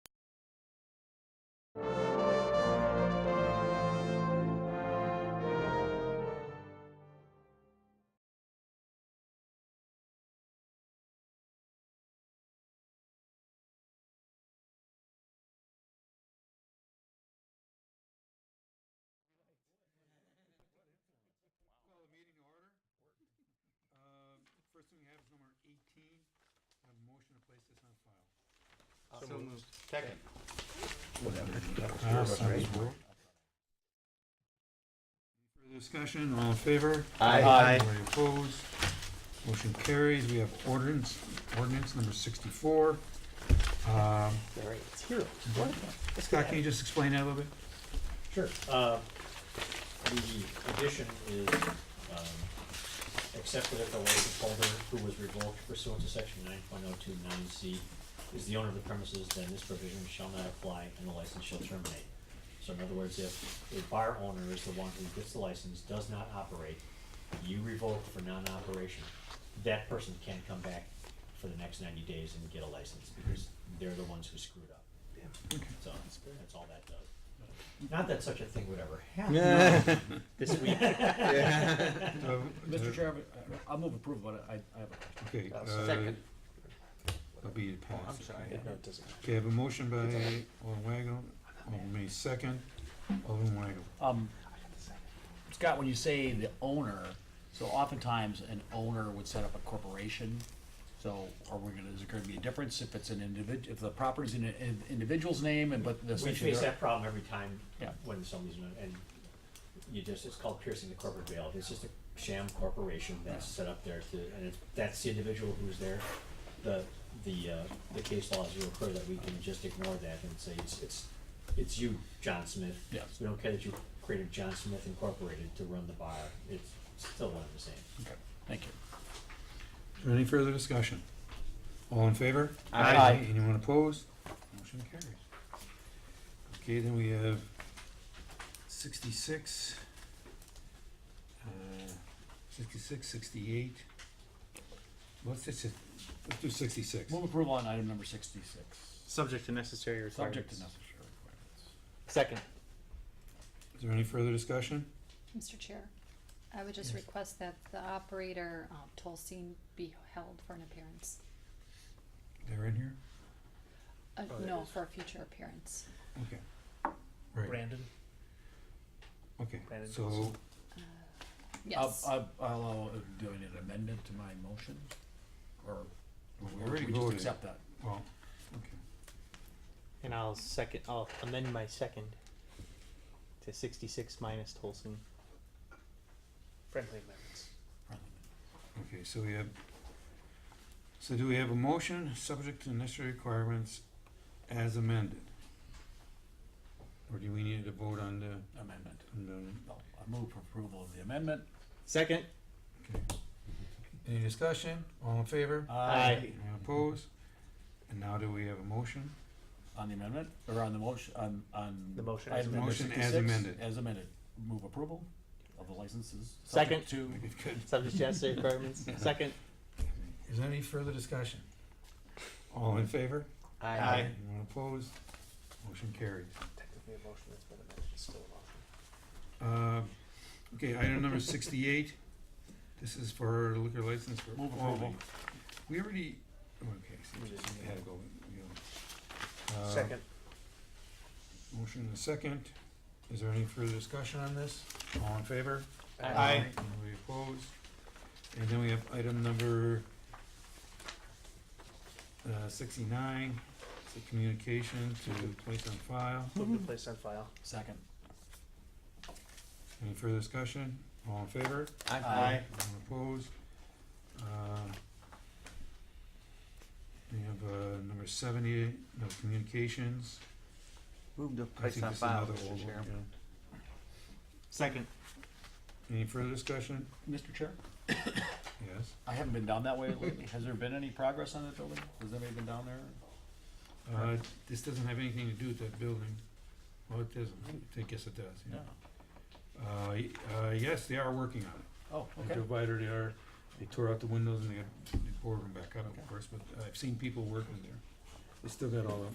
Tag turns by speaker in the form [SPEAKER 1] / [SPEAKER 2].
[SPEAKER 1] Uh, motion to place this on file?
[SPEAKER 2] So moved. Second.
[SPEAKER 1] Further discussion, all in favor?
[SPEAKER 2] Aye. Aye.
[SPEAKER 1] Anybody opposed? Motion carries. We have ordinance, ordinance number sixty-four. Um,
[SPEAKER 2] All right, it's here. Wonderful. Let's go
[SPEAKER 1] Scott, can
[SPEAKER 2] ahead.
[SPEAKER 1] you just explain that a little bit?
[SPEAKER 3] Sure. Uh, The addition is, um, accepted if the license holder who was revoked pursuant to section nine point oh two nine C is the owner of the premises, then this provision shall not apply and the license shall terminate. So in other words, if the bar owner is the one who gets the license, does not operate, you revoke for non-operation, that person can't come back for the next ninety days and get a license because they're the ones who screwed up. So that's all that does. Not that such a thing would ever happen.
[SPEAKER 2] This week.
[SPEAKER 4] Mr. Chairman, I- I'll move approval, but I, I have a
[SPEAKER 1] Uh, Okay.
[SPEAKER 4] question.
[SPEAKER 2] Uh,
[SPEAKER 1] uh,
[SPEAKER 2] second.
[SPEAKER 1] That'll be passed.
[SPEAKER 2] I'm sorry.
[SPEAKER 1] Okay.
[SPEAKER 2] No, it doesn't.
[SPEAKER 1] Okay, I have a motion by Alderman Weigl, Alderman May second, Alderman Weigl.
[SPEAKER 4] Um, Scott, when you say the owner, so oftentimes an owner would set up a corporation. So are we gonna, is it gonna be a difference if it's an individ, if the property's in an in- individual's name and but the.
[SPEAKER 3] We face that problem every time
[SPEAKER 4] Yeah.
[SPEAKER 3] when somebody's, in a- and you just, it's called piercing the corporate veil. It's just a sham corporation that's set up there to, and it's, that's the individual who's there. The, the, uh, the case laws will occur that we can just ignore that and say, it's, it's, it's you, John Smith.
[SPEAKER 4] Yeah.
[SPEAKER 3] We don't care that you created John Smith Incorporated to run the bar. It's still one and the same.
[SPEAKER 4] Okay, Thank you.
[SPEAKER 1] Any further discussion? All in favor?
[SPEAKER 2] Aye.
[SPEAKER 1] Anyone opposed? Motion carries. Okay, then we have sixty-six, uh, sixty-six, sixty-eight. Let's just, let's do sixty-six.
[SPEAKER 4] Move approval on item number sixty-six,
[SPEAKER 2] Subject to necessary requirements.
[SPEAKER 4] subject to necessary requirements.
[SPEAKER 2] Second.
[SPEAKER 1] Is there any further discussion?
[SPEAKER 5] Mr. Chair, I would just request that the operator, um, Tolstein be held for an appearance.
[SPEAKER 1] They're in here?
[SPEAKER 5] Uh,
[SPEAKER 4] Oh,
[SPEAKER 5] no, for a future appearance.
[SPEAKER 1] Okay. Right,
[SPEAKER 6] Brandon,
[SPEAKER 1] okay,
[SPEAKER 6] Brandon
[SPEAKER 1] so,
[SPEAKER 6] Johnson.
[SPEAKER 5] Yes.
[SPEAKER 4] I'll, I'll, I'll, uh, do I need an amendment to my motion? Or,
[SPEAKER 1] we
[SPEAKER 4] or
[SPEAKER 1] already
[SPEAKER 4] do we just
[SPEAKER 1] voted.
[SPEAKER 4] accept that?
[SPEAKER 1] well, okay.
[SPEAKER 2] And I'll second, I'll amend my second to sixty-six minus Tolson.
[SPEAKER 6] friendly amendments.
[SPEAKER 1] Okay, so we have, so do we have a motion, subject to necessary requirements as amended? Or do we need to vote on the,
[SPEAKER 4] Amendment.
[SPEAKER 1] on the,
[SPEAKER 4] No, I move for approval of the amendment.
[SPEAKER 2] Second.
[SPEAKER 1] any discussion, all in favor?
[SPEAKER 2] Aye.
[SPEAKER 1] Anyone opposed? And now do we have a motion?
[SPEAKER 4] On the amendment, or on the motion, on, on.
[SPEAKER 6] The motion as
[SPEAKER 4] item number
[SPEAKER 1] Motion as
[SPEAKER 4] 66,
[SPEAKER 1] amended.
[SPEAKER 4] As amended. Move approval of the licenses.
[SPEAKER 2] Second.
[SPEAKER 4] subject To,
[SPEAKER 1] Good.
[SPEAKER 2] Subject to necessary requirements. Second.
[SPEAKER 1] Is there any further discussion? All in favor?
[SPEAKER 2] Aye.
[SPEAKER 1] Anyone opposed? Motion carries.
[SPEAKER 6] Technically a motion that's been amended, it's still a motion.
[SPEAKER 1] Uh, okay, item number sixty-eight, this is for liquor license for. Oh,
[SPEAKER 4] Move
[SPEAKER 1] all
[SPEAKER 4] approval.
[SPEAKER 1] the- We already, oh, okay, so we just had to go, you know. Uh,
[SPEAKER 6] Second.
[SPEAKER 1] Motion and a second, is there any further discussion on this? All in favor?
[SPEAKER 2] Aye.
[SPEAKER 1] Anybody opposed? And then we have item number uh, sixty-nine, it's a communication to place on file.
[SPEAKER 6] Move to place on file.
[SPEAKER 4] second.
[SPEAKER 1] Any further discussion? All in favor?
[SPEAKER 4] Aye.
[SPEAKER 1] Anyone opposed? Uh, We have, uh, number seventy, no communications.
[SPEAKER 2] Move to
[SPEAKER 1] I think this is another old one,
[SPEAKER 2] Second.
[SPEAKER 1] yeah. Any further discussion?
[SPEAKER 4] Mr. Chair,
[SPEAKER 1] Yes.
[SPEAKER 4] I haven't been down that way lately. Has there been any progress on that building? Has anybody been down there?
[SPEAKER 1] Uh, this doesn't have anything to do with that building. Well, it doesn't. I guess it does, yeah. Uh, y- uh, yes, they are working on it.
[SPEAKER 4] Oh,
[SPEAKER 1] They
[SPEAKER 4] okay.
[SPEAKER 1] provided they are, they tore out the windows and they got the boardroom back up,
[SPEAKER 4] Okay.
[SPEAKER 1] of course, but I've seen people working there. They still got all